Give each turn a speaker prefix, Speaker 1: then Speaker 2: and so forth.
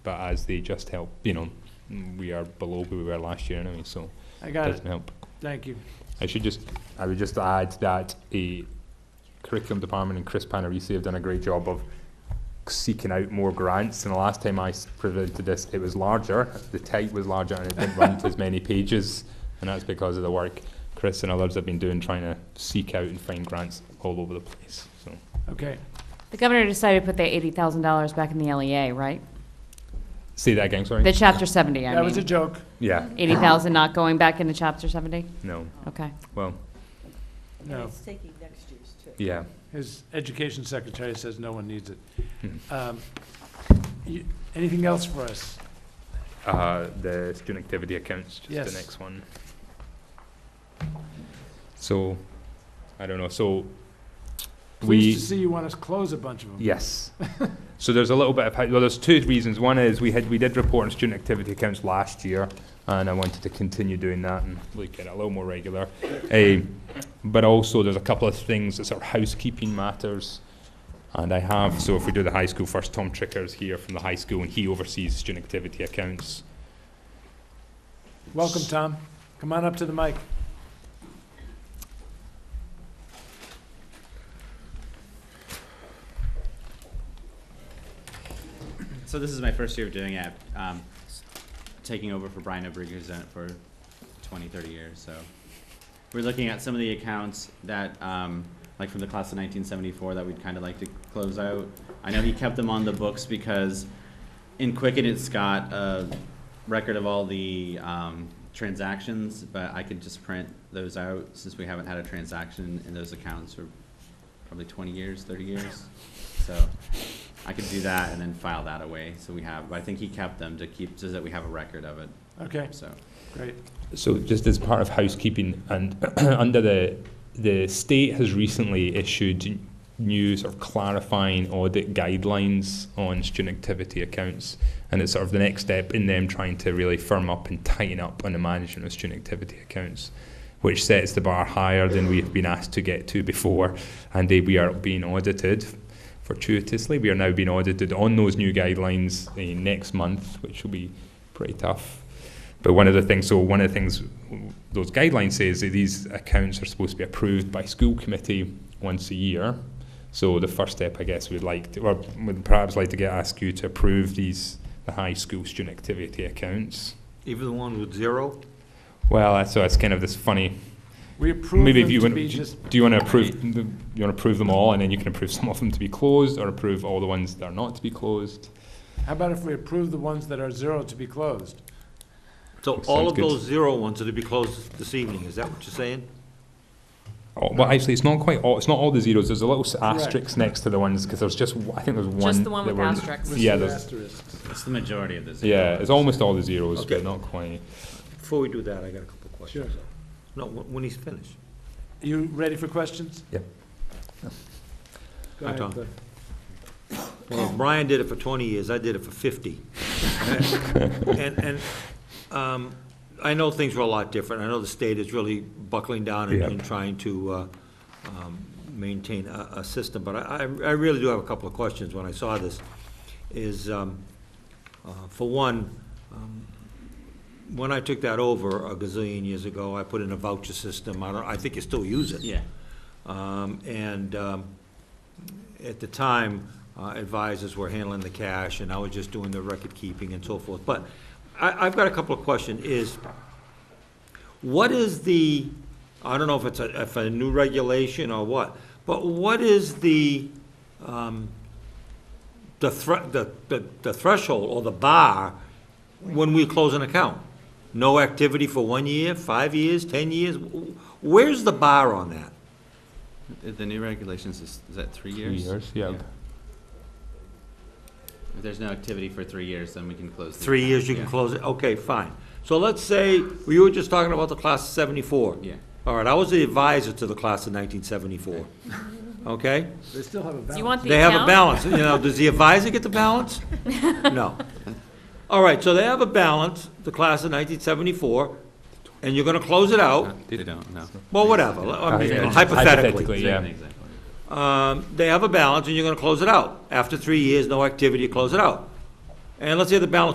Speaker 1: but as they just help, you know, we are below where we were last year anyway, so
Speaker 2: I
Speaker 1: it
Speaker 2: got it,
Speaker 1: doesn't help.
Speaker 2: thank you.
Speaker 1: I should just, I would just add that a curriculum department and Chris Panarisi have done a great job of seeking out more grants. And the last time I s- presented this, it was larger, the type was larger, and it didn't run to as many pages. And that's because of the work Chris and others have been doing, trying to seek out and find grants all over the place. So
Speaker 2: Okay,
Speaker 3: The governor decided to put the eighty thousand dollars back in the LEA, right?
Speaker 1: say that again, sorry.
Speaker 3: The chapter seventy, I
Speaker 2: that was a
Speaker 3: mean.
Speaker 2: joke.
Speaker 1: yeah,
Speaker 3: Eighty thousand not going back into chapter seventy?
Speaker 1: no.
Speaker 3: Okay.
Speaker 1: Well,
Speaker 2: No,
Speaker 4: It's taking next year's too.
Speaker 1: yeah.
Speaker 2: his education secretary says no one needs it.
Speaker 1: Hmm.
Speaker 2: Um, you- Anything else for us?
Speaker 1: Uh, the student activity accounts, just
Speaker 2: Yes.
Speaker 1: the next one. So, I don't know. So,
Speaker 2: Pleased
Speaker 1: We-
Speaker 2: to see you want us to close a bunch of them.
Speaker 1: Yes. so there's a little bit of well, there's two reasons. One is we had we did report on student activity accounts last year, and I wanted to continue doing that and look at it a little more regular. Eh, but also there's a couple of things that sort of housekeeping matters. And I have, so if we do the high school first, Tom Tricker is here from the high school and he oversees student activity accounts.
Speaker 2: Welcome, Tom. Come on up to the mic.
Speaker 5: So this is my first year of doing it, um, s- taking over for Brian O'Brien, who's done it for 20, 30 years, so. We're looking at some of the accounts that, um, like from the class of nineteen seventy-four that we'd kind of like to close out. I know he kept them on the books because in Quicken, it's got a record of all the, um, transactions, but I could just print those out since we haven't had a transaction in those accounts for probably twenty years, thirty years, so. I could do that and then file that away, so we have, but I think he kept them to keep, so that we have a record of it,
Speaker 2: Okay,
Speaker 5: so.
Speaker 2: great.
Speaker 1: So just as part of housekeeping and under the the state has recently issued new sort of clarifying audit guidelines on student activity accounts and it's sort of the next step in them trying to really firm up and tighten up on the management of student activity accounts which sets the bar higher than we have been asked to get to before and they, we are being audited fortuitously we are now being audited on those new guidelines uh, next month which will be pretty tough but one of the things, so one of the things those guidelines say is that these accounts are supposed to be approved by school committee once a year. So the first step, I guess, we'd like to, or would perhaps like to get ask you to approve these the high school student activity accounts.
Speaker 6: Even the one with zero?
Speaker 1: Well, that's- so it's kind of this funny.
Speaker 2: We approve them
Speaker 1: maybe if you
Speaker 2: to
Speaker 1: want,
Speaker 2: be just,
Speaker 1: do you want to approve? the- You want to approve them all, and then you can approve some of them to be closed, or approve all the ones that are not to be closed.
Speaker 2: how about if we approve the ones that are zero to be closed?
Speaker 6: So
Speaker 1: Sounds
Speaker 6: all of
Speaker 1: good.
Speaker 6: those zero ones are to be closed this evening, is that what you're saying?
Speaker 1: Oh, well, actually, it's not quite all. It's not all the zeros. There's a little s asterisk next to the ones because there's just. one- I think there's one.
Speaker 3: Just the one
Speaker 1: that
Speaker 3: with
Speaker 1: we're-
Speaker 3: asterisks.
Speaker 1: Yeah,
Speaker 2: With
Speaker 1: there's,
Speaker 2: asterisks.
Speaker 5: It's the majority of the zero.
Speaker 1: yeah, it's almost all the zeros, but
Speaker 6: Okay.
Speaker 1: not quite.
Speaker 6: Before we do that, I got a couple of questions.
Speaker 2: Sure.
Speaker 6: No, when when he's finished.
Speaker 2: You ready for questions?
Speaker 1: Yep.
Speaker 2: Go
Speaker 6: Hi,
Speaker 2: ahead,
Speaker 6: Tom.
Speaker 2: Cliff.
Speaker 6: Well, if Brian did it for 20 years, I did it for 50. And, and um, I know things were a lot different. I know the state is really buckling down and-
Speaker 1: Yeah.
Speaker 6: and trying to uh, um, maintain a, a system, but I, I I really do have a couple of questions when I saw this. Is, um, uh, for one, um, when I took that over a gazillion years ago, I put in a voucher system. I don't, I think you still use it.
Speaker 5: Yeah.
Speaker 6: Um, And um, at the time, uh, advisors were handling the cash, and I was just doing the record keeping and so forth. But I, I've got a couple of questions, is, what is the, I don't know if it's a, if a new regulation or what, but what is the, um, the thre, the, the- the threshold or the bar when we close an account? No activity for one year, five years, 10 years? Where's the bar on that?
Speaker 5: The- The new regulations is, is that three
Speaker 1: Three
Speaker 5: years?
Speaker 1: years, yeah.
Speaker 5: If there's no activity for three years, then we can close. the
Speaker 6: Three
Speaker 5: account,
Speaker 6: years you can
Speaker 5: yeah.
Speaker 6: close it, okay, fine. So let's say, we were just talking about the class of seventy-four.
Speaker 5: Yeah.
Speaker 6: All right, I was the advisor to the class of nineteen seventy-four, okay?
Speaker 2: They still have a
Speaker 3: Do
Speaker 2: balance.
Speaker 3: you want the
Speaker 6: They have a
Speaker 3: account?
Speaker 6: balance, you know, does the advisor get the balance? No. All right, so they have a balance, the class of nineteen seventy-four, and you're gonna close it out,
Speaker 5: They don't, no.
Speaker 6: well, whatever, I mean, hypothetically.
Speaker 1: yeah.
Speaker 5: Exactly.
Speaker 6: Um, they have a balance and you're gonna close it out. After three years, no activity, you close it out. And let's say the balance